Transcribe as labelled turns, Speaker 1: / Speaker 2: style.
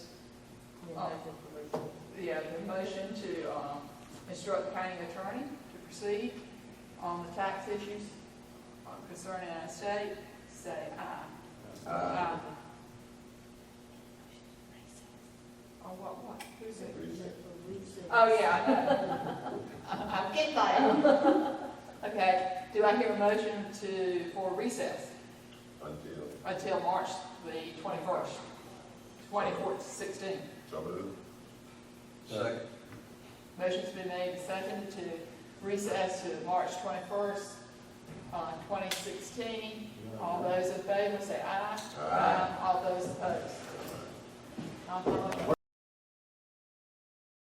Speaker 1: Yeah, the motion to um, instruct the county attorney to proceed on the tax issues concerning our state, say aye. Aye. Oh, what, what, who's it? Oh, yeah, I know. I- I get that. Okay, do I hear a motion to, for recess
Speaker 2: Until,
Speaker 1: until March the twenty-first, twenty-fourth, sixteen?
Speaker 2: so moved.
Speaker 3: Second.
Speaker 1: Motion's been made and seconded to recess to March twenty-first, uh, twenty sixteen. All those in favor say aye.
Speaker 2: Aye.
Speaker 1: All those opposed. Not all.